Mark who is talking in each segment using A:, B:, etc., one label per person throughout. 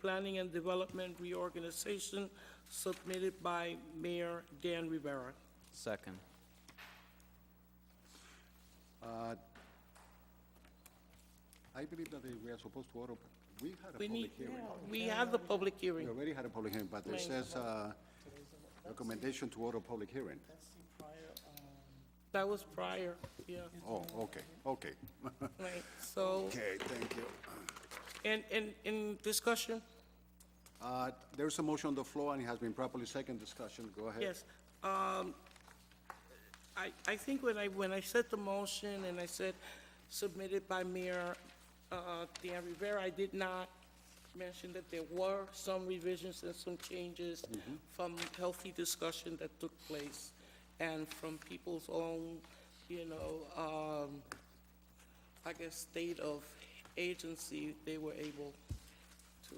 A: Planning and Development Reorganization submitted by Mayor Dan Rivera.
B: Second.
C: I believe that they- we are supposed to open, we had a
A: We
C: public
A: need,
C: hearing.
A: we have the public
C: We
A: hearing.
C: already had a public hearing, but it says, uh, recommendation to order public hearing.
A: That was prior, yeah,
C: Oh, okay, okay.
A: right, so,
C: Okay, thank you.
A: and, and, in discussion?
C: Uh, There's a motion on the floor, and it has been properly second discussion, go ahead.
A: Yes. Um, I, I think when I, when I said the motion and I said submitted by Mayor uh, Dan Rivera, I did not mention that there were some revisions and some changes from healthy discussion that took place and from people's own, you know, um, I guess, state of agency, they were able to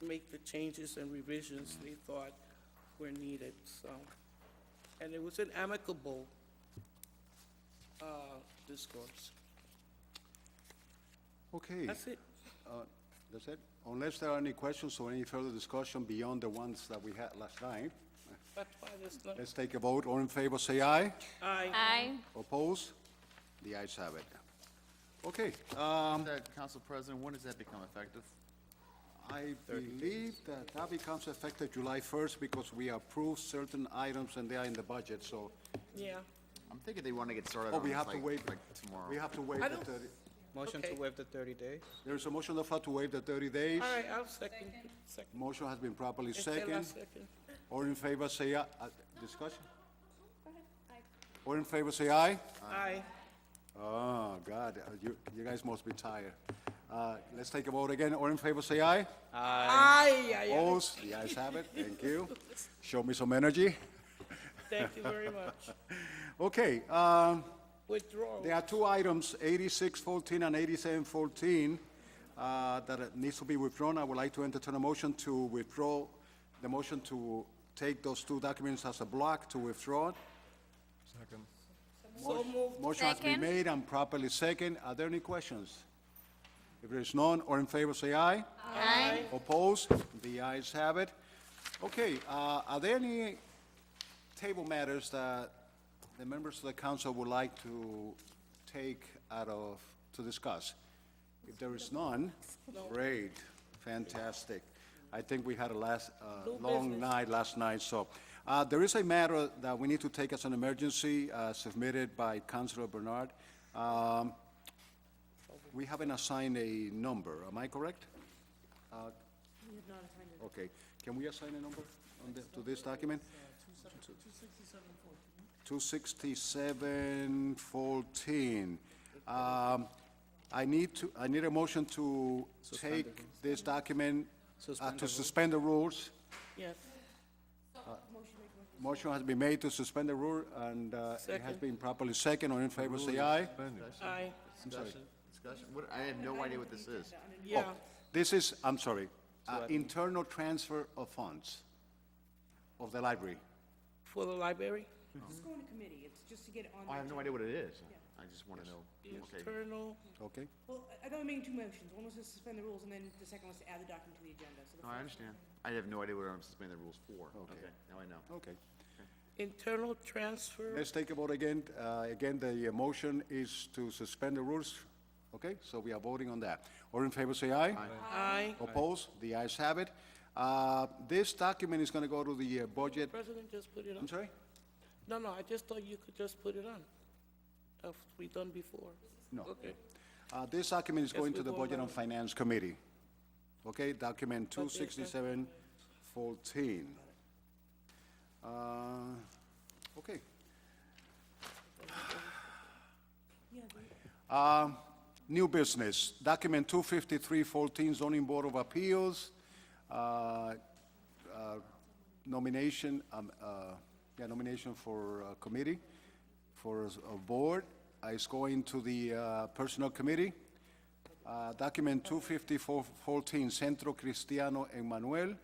A: make the changes and revisions they thought were needed, so. And it was an amicable uh, discourse.
C: Okay.
A: That's it.
C: Uh, That's it? Unless there are any questions or any further discussion beyond the ones that we had last night,
A: That's why there's no,
C: let's take a vote. All in favor, say aye.
A: aye,
D: Aye.
C: Oppose? The ayes have it. Okay, uh,
E: That, Council President, when does that become effective?
C: I believe that that becomes effective July 1st because we approved certain items and they are in the budget, so,
A: yeah.
E: I'm thinking they want to get started
C: oh,
E: on
C: we
E: this
C: have to
E: like,
C: wait.
E: like tomorrow.
C: We have to wait
A: I
C: the
A: don't-
C: 30,
B: Motion to
A: Okay.
B: waive the 30 days?
C: there is a motion on the floor to waive the 30 days.
A: All right, I'll second. Second.
C: Motion has been properly
A: Uh, Estela,
C: second.
A: second.
C: All in favor, say aye. Uh, Discussion? All in favor, say aye.
A: Aye,
C: Oh, God, uh, you, you guys must be tired. Uh, Let's take a vote again. All in favor, say
A: aye,
C: aye.
A: aye, aye.
C: Opposed? The ayes have it. Thank you. Show me some energy.
A: Thank you very much.
C: Okay, um,
A: Withdrawal.
C: There are two items, 8614 and 8714, uh, that it needs to be withdrawn. I would like to entertain a motion to withdraw, the motion to take those two documents as a block to withdraw.
A: So moved.
C: Motion has been
D: Second.
C: made and properly second. Are there any questions? If there is none, or in favor, say aye.
D: Aye.
C: Opposed? The ayes have it. Okay, uh, are there any table matters that the members of the council would like to take out of, to discuss? If there is none, great, fantastic. I think we had a last, uh, long night last night, so. uh, There is a matter that we need to take as an emergency uh, submitted by Councilor Bernard. Um, We haven't assigned a number, am I correct? Uh, Okay, can we assign a number on the, to this document? Two sixty-seven fourteen. Um, I need to, I need a motion to take this document, uh, to suspend the rules.
A: Yes,
C: Motion has been made to suspend the rule, and, uh, it has
A: Second.
C: been properly second, all in favor, say aye.
A: aye,
C: I'm sorry.
E: Discussion, what, I have no idea what this is.
A: yeah.
C: This is, I'm sorry, uh, internal transfer of funds of the library.
A: For the library?
F: It's going to committee, it's just to get it on.
E: Oh, I
F: the
E: have no idea what it is. I just want to know. Okay,
A: Internal,
C: Okay?
F: Well, I- I thought we made two motions, one was to suspend the rules, and then the second was to add the document to the agenda, so the
E: no, I understand. I have no idea what I'm suspending the rules for. Okay, now I know.
C: Okay.
A: internal transfer,
C: Let's take a vote again. Uh, Again, the uh, motion is to suspend the rules, okay? So we are voting on that. All in favor, say aye.
A: aye.
C: Oppose? The ayes have it. Uh, This document is going to go to the uh, budget,
A: President, just put it on.
C: I'm sorry?
A: No, no, I just thought you could just put it on, as we done before.
C: No.
A: Okay.
C: Uh, This document is going
A: we
C: to the
A: go
C: Budget and
A: along.
C: Finance Committee, okay? Document 26714. Uh, Okay. Uh, New business, document 25314, zoning board of appeals, uh, uh, nomination, um, uh, yeah, nomination for uh, committee, for a board, Uh, it's going to the uh, personal committee. Uh, Document 25414, Centro Cristiano Emanuel,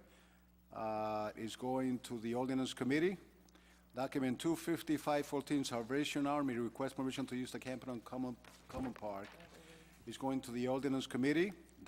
C: uh, is going to the ordinance committee. Document 25514, Salvation Army, request permission to use the Camden Common Common Park, is going to the ordinance committee.